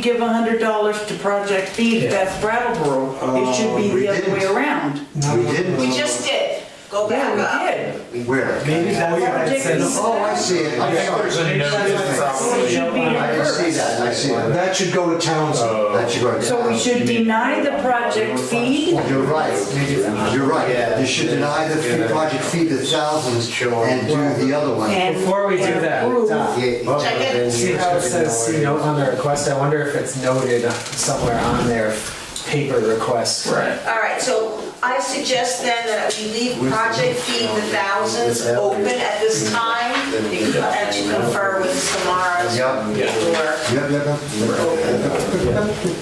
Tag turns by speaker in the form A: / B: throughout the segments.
A: give a hundred dollars to Project Feed,
B: Yeah. Oh,
A: that's Brattleboro. It should be
C: Uh, we
A: the other way
C: didn't.
A: around.
C: We did.
D: We just did. Go back
A: Yeah, we
D: up.
A: did.
C: did. Where?
B: Maybe that's why it says.
C: Oh, I see it. I'm sorry.
A: So it should be
C: I can see
A: reversed.
C: that, I see that.
B: That should go to Townsend.
C: That should go.
A: So we should deny the Project Feed?
C: You're right, you're right. You should deny the fee- project fee to thousands and do the other one.
A: and-
B: Before we do
A: and
B: that,
A: approve.
B: uh,
D: Check it.
B: See how it says see note on the request, I wonder if it's noted somewhere on their paper request. Right.
D: All right, so I suggest then that we leave Project Feed the Thousands open at this time. You can have to confer with Samara's
C: Yep.
D: or,
C: Yep, yep, yep.
D: okay?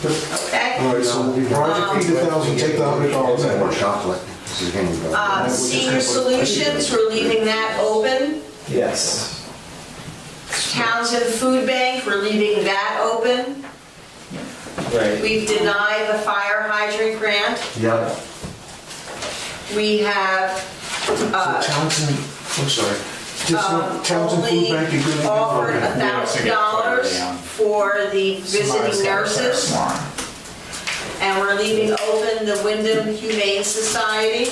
D: Uh,
E: All right, so Project Feed the Thousand, take the hundred dollars
C: Um, More
E: out.
C: chocolate. This is getting better.
D: Uh, Senior Solutions, we're leaving that open.
B: Yes.
D: Townsend Food Bank, we're leaving that open.
B: Right.
D: We've denied the fire hydrant grant.
C: Yep.
D: We have, uh,
E: Townsend, I'm sorry, just
D: um,
E: look, Townsend Food
D: only
E: Bank, you're gonna get.
D: offered a
E: one.
D: thousand dollars for the visiting nurses, and we're leaving open the Wyndham Humane Society.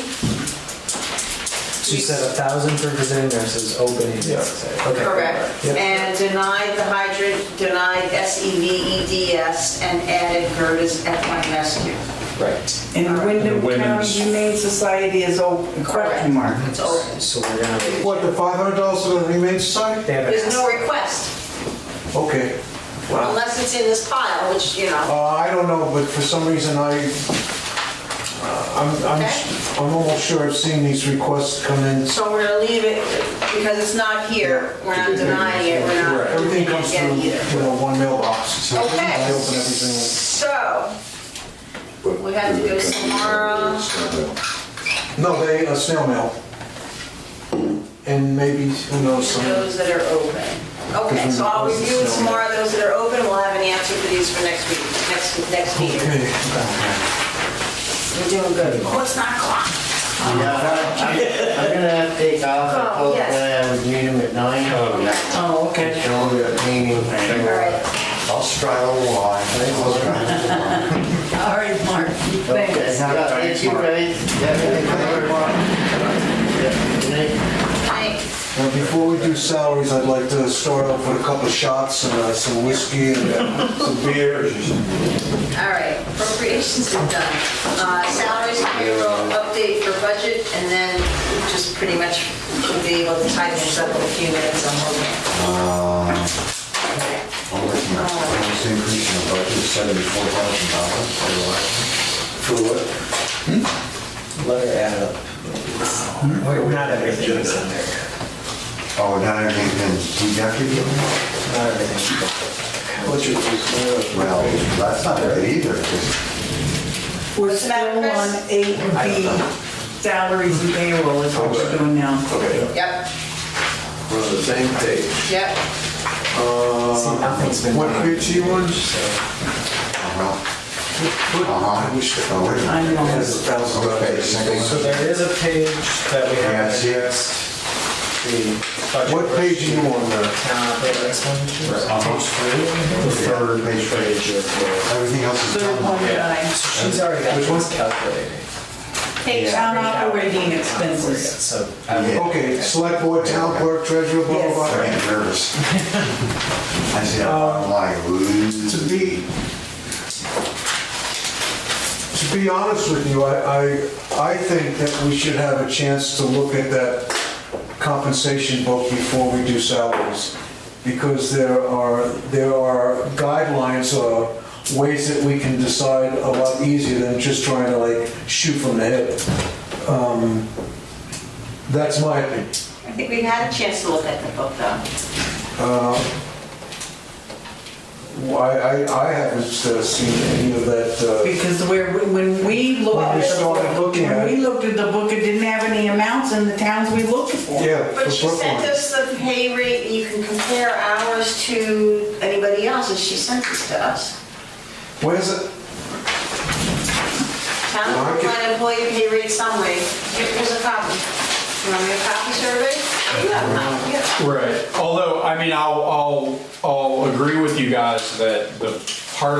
B: You said a thousand for visiting nurses opening. Okay.
D: Correct.
B: Yep.
D: And denied the hydrant, denied E SEVEDS, and added Gerta's equine rescue.
B: Right.
A: And Wyndham County
F: Women's-
A: Humane Society is open, question mark.
D: It's open.
B: So we're gonna,
E: What, the five hundred dollars to the Humane Society?
B: they have
D: There's no
B: an,
D: request,
E: Okay,
D: unless it's in this pile, which, you know,
E: uh, I don't know, but for some reason I, uh, I'm, I'm, I'm almost sure I've seen these requests come in.
D: so we're gonna leave it, because it's not here, we're not denying it, we're not.
E: Everything comes
D: Yeah,
E: through,
D: either.
E: you know, one mailbox, so I open
D: Okay.
E: everything.
D: So, we have to go tomorrow.
E: No, they, a snail mail. And maybe, who knows, some,
D: Those that are open. Okay, so I'll review with tomorrow those that are open, we'll have an answer for these for next week, next, next meeting.
E: okay.
D: We're doing good. What's nine o'clock?
G: Yeah, I'm I'm gonna have to take off, I
D: Oh,
G: told the
D: yes.
G: guy I would meet him at nine.
A: Oh, okay.
G: Shoulder painting.
D: All right,
C: I'll straddle the line. I'll straddle the line.
A: All right, Mark,
G: Okay,
A: thanks.
G: now, thank you guys. Yeah, yeah, good night.
D: thanks.
E: Now, before we do salaries, I'd like to start off with a couple of shots and uh, some whiskey and uh, some beer.
D: All right, appropriations is done. Uh, Salaries, payroll, update for budget, and then just pretty much we'll be able to tie this up in a few minutes, I'm hoping.
E: Uh,
C: I'll let you know. What's the increase in the budget, seventy-four thousand dollars for the last-
B: for what? Let her add up. Wait, we're not everything is on there.
C: Oh, now everything's been deducted?
B: Not everything.
E: What's your please?
C: Well, that's not good either.
A: We're
D: What's the matter,
A: still
D: Chris?
A: on eight B, salaries and payroll is what we're doing now.
D: Yep,
E: We're on the same page.
D: yep.
B: See, nothing's been
E: What
B: done.
E: page you want?
C: Uh-huh.
E: I wish that
C: Oh, wait a
A: I
C: minute.
A: know.
E: was a thousand
C: Okay, second
B: So
C: one.
B: there is a page that we
C: Yeah, I
B: have
C: see it.
B: addressed. the budget
E: What page are you on uh? there?
B: Town operating expenditures.
C: The third page, page. Everything else is
A: Third
C: done.
A: one that I-
B: So she's already got. Which one's calculating?
A: Hey, town operating expenses.
B: So. I would-
E: Okay, select board, town clerk, treasurer, blah, blah,
A: Yes.
E: blah.
C: I get nervous. I see that bottom line.
E: To
C: Ooh.
E: be, to be honest with you, I, I, I think that we should have a chance to look at that compensation book before we do salaries. Because there are, there are guidelines or ways that we can decide a lot easier than just trying to like shoot from the hip. Um, That's my opinion.
D: I think we've had a chance to look at the book, though.
E: Why, I, I haven't uh, seen any of that, uh,
A: Because where, when we looked.
E: When we started looking at
A: When
E: it.
A: we looked at the book, it didn't have any amounts in the towns we looked for.
E: yeah.
D: But
E: the
D: she
E: book
D: sent
E: one.
D: us the pay rate, you can compare ours to anybody else's, she sent this to us.
E: Where's it?
D: Town
E: Well, I
D: of
E: could-
D: Brooklyn employee pay rate summary, Here- here's a copy. You want me to copy survey? You have one, yeah.
F: Right, although, I mean, I'll, I'll, I'll agree with you guys that the part